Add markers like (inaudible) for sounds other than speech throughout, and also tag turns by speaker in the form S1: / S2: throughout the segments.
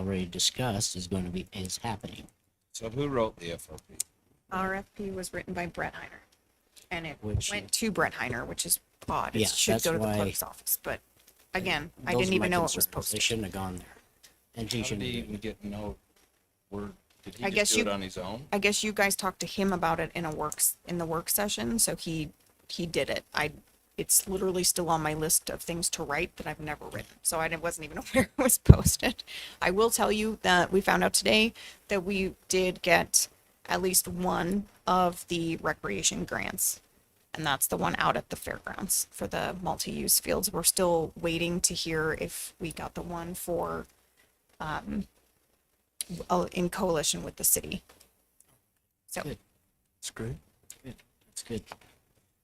S1: already discussed is going to be, is happening.
S2: So who wrote the FOP?
S3: RFP was written by Brett Heiner, and it
S1: Which-
S3: went to Brett Heiner, which is odd.
S1: Yeah,
S3: It should
S1: that's
S3: go to the
S1: why-
S3: clerk's office, but again, I
S1: Those
S3: didn't
S1: are
S3: even
S1: my
S3: know it was
S1: concerns. They
S3: posted.
S1: shouldn't have gone there. And he
S2: How did
S1: shouldn't.
S2: he
S1: have
S2: even
S1: even-
S2: get no word? Did
S3: I
S2: he
S3: guess
S2: just do it
S3: you-
S2: on his own?
S3: I guess you guys talked to him about it in a works in the work session, so he he did it. I it's literally still on my list of things to write that I've never written, so I didn't- wasn't even (laughs) aware it was posted. I will tell you that we found out today that we did get at least one of the recreation grants, and that's the one out at the fairgrounds for the multi-use fields. We're still waiting to hear if we got the one for um, oh, in coalition with the city. So.
S1: Good. Good. That's good.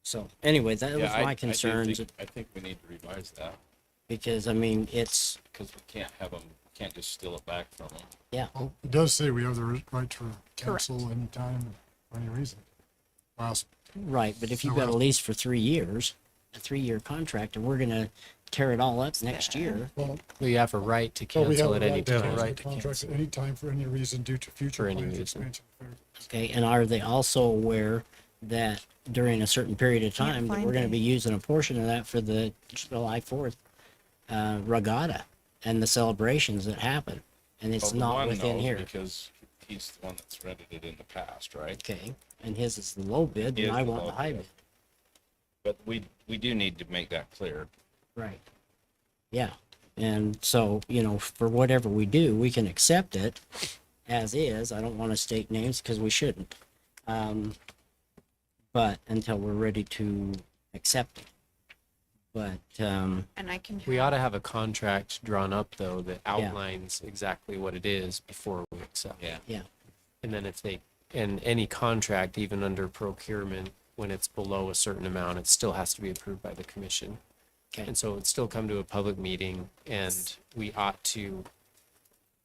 S1: So anyway, that was
S2: Yeah, I- I
S1: my
S2: do
S1: concerns
S2: think- I think we need to revise that
S1: because I mean, it's,
S2: because we can't have them, can't just steal it back from them.
S1: yeah,
S4: Well, it does say we have the ri- right to cancel anytime for any reason. Well, s-
S1: right. But if you've
S4: No,
S1: got a
S4: well-
S1: lease for three years, a three-year contract, and we're going to tear it all up next year,
S4: well,
S5: We have a right to
S4: well, we have
S5: cancel
S4: the
S5: at any
S4: right to
S5: time.
S4: cancel the contract at any time for any reason due to future
S5: For any
S4: plans,
S5: reason.
S4: expansion. or-
S1: okay? And are they also aware that during a certain period of
S3: Can't
S1: time, that
S3: find
S1: we're going to
S3: it.
S1: be using a portion of that for the July 4th uh, regatta and the celebrations that happen? And it's
S2: Well, the
S1: not
S2: one
S1: within
S2: knows
S1: here.
S2: Because he's the one that's rented it in the past, right?
S1: Okay, and his is the low bid,
S2: He
S1: and
S2: is
S1: I
S2: the
S1: want the
S2: low
S1: high
S2: bid.
S1: bid.
S2: But we, we do need to make that clear.
S1: Right. Yeah, and so, you know, for whatever we do, we can accept it as is. I don't want to state names because we shouldn't. Um, but until we're ready to accept it. But, um,
S3: And I can.
S5: We
S3: have-
S5: ought to have a contract drawn up though that
S1: Yeah.
S5: outlines exactly what it is before we accept.
S2: Yeah.
S1: yeah,
S5: And then if they, and any contract, even under procurement, when it's below a certain amount, it still has to be approved by the commission.
S1: okay,
S5: And so it'd still come to a public meeting and we ought to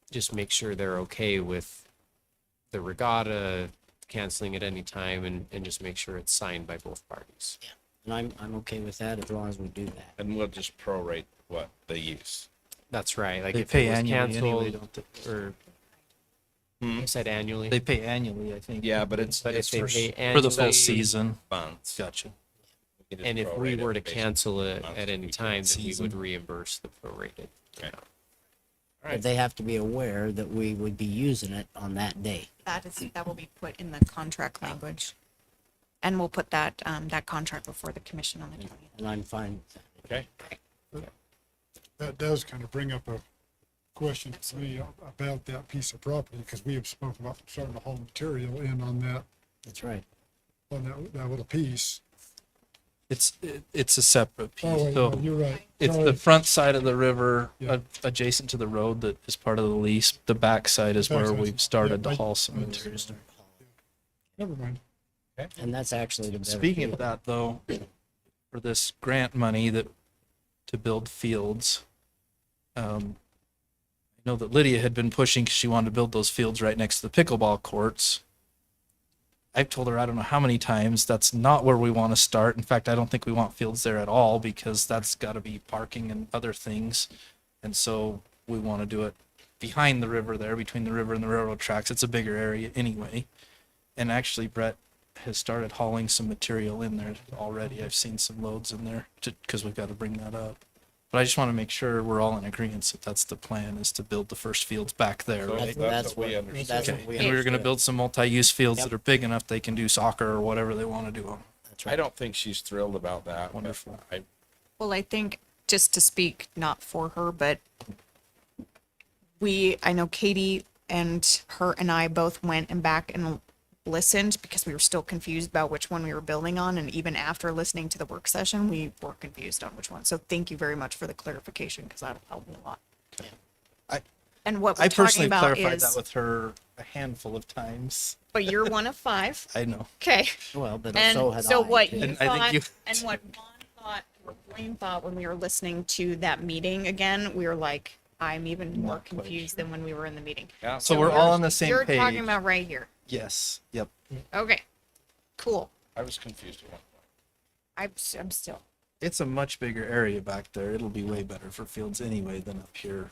S5: just make sure they're okay with the regatta canceling at any time and, and just make sure it's signed by both parties.
S1: and I'm, I'm okay with that as long as we do that.
S2: And we'll just prorate what they use.
S5: That's right. Like
S6: They
S5: if it
S6: pay
S5: was
S6: annually anyway,
S5: canceled
S6: don't they?
S5: or
S2: Hmm?
S5: I said annually.
S6: They pay annually, I think.
S2: Yeah, but it's,
S5: But
S2: it's
S5: if they
S2: for
S5: pay
S2: s-
S5: annually.
S6: For the full season.
S2: months.
S6: Gotcha.
S2: We can just
S5: And if we
S2: prorate it
S5: were to
S2: based-
S5: cancel it
S2: months
S5: at
S2: that
S5: any
S2: we
S5: time, then we would
S6: Season.
S5: reimburse the prorated.
S2: Okay.
S5: amount.
S1: But they have to be aware that we would be using it on that day.
S3: That is, that will be put in the contract language. And we'll put that, um, that contract before the commission on the twentieth.
S1: And I'm fine with that.
S2: Okay,
S4: That does kind of bring up a question to me about that piece of property, because we have spoken about starting to haul material in on that,
S1: That's right.
S4: on that, that little piece.
S6: It's, it- it's a separate
S4: Oh, wait,
S6: piece.
S4: no,
S6: So
S4: you're right.
S6: it's
S4: Sorry.
S6: the front side of the river
S4: Yeah.
S6: ad- adjacent to the road that is part of the lease. The back side is where
S4: Backside's-
S6: we've started
S4: yeah,
S6: to
S4: I-
S6: haul some
S4: I-
S6: material.
S4: Never mind.
S1: And that's actually the better.
S6: Speaking
S1: deal.
S6: of that though, for this grant money that, to build fields, um, I know that Lydia had been pushing 'cause she wanted to build those fields right next to the pickleball courts. I've told her I don't know how many times that's not where we want to start. In fact, I don't think we want fields there at all because that's got to be parking and other things. And so we want to do it behind the river there, between the river and the railroad tracks. It's a bigger area anyway. And actually, Brett has started hauling some material in there already. I've seen some loads in there because we've got to bring that up. But I just want to make sure we're all in agreement that that's the plan is to build the first fields back there,
S2: So-
S6: right?
S1: That's-
S2: That's what
S1: That's
S2: we
S1: what,
S2: understood.
S1: that's what
S6: Okay.
S1: we.
S6: And we were going to
S1: understood.
S6: build some multi-use fields
S1: Yep.
S6: that are big enough they can do soccer or whatever they want to do on.
S1: That's
S2: I
S1: right.
S2: don't think she's thrilled about that. but
S6: Wonderful.
S2: I,
S3: Well, I think just to speak, not for her, but we, I know Katie and her and I both went and back and listened because we were still confused about which one we were building on. And even after listening to the work session, we were confused on which one. So thank you very much for the clarification because that'll help me a lot.
S6: I-
S3: And what we're
S6: I
S3: talking
S6: personally
S3: about
S6: clarified that
S3: is,
S6: with her a handful of times.
S3: but you're one of five.
S6: (laughs) I know.
S3: Okay.
S1: Well, but
S3: And
S1: so had
S3: so
S1: I,
S3: what
S1: too.
S3: you
S6: And I think
S3: thought,
S6: you-
S3: and what Vaughn thought, what Blaine thought when we were listening to that meeting again, we were like, I'm even more
S6: Not quite
S3: confused than when we were in the meeting.
S2: yeah,
S6: So we're all on the same
S3: You're
S6: page.
S3: talking about right here.
S6: yes. Yep.
S3: Okay, cool.
S2: I was confused at one point.
S3: I'm, s- I'm still.
S6: It's a much bigger area back there. It'll be way better for fields anyway than up here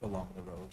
S6: along the road.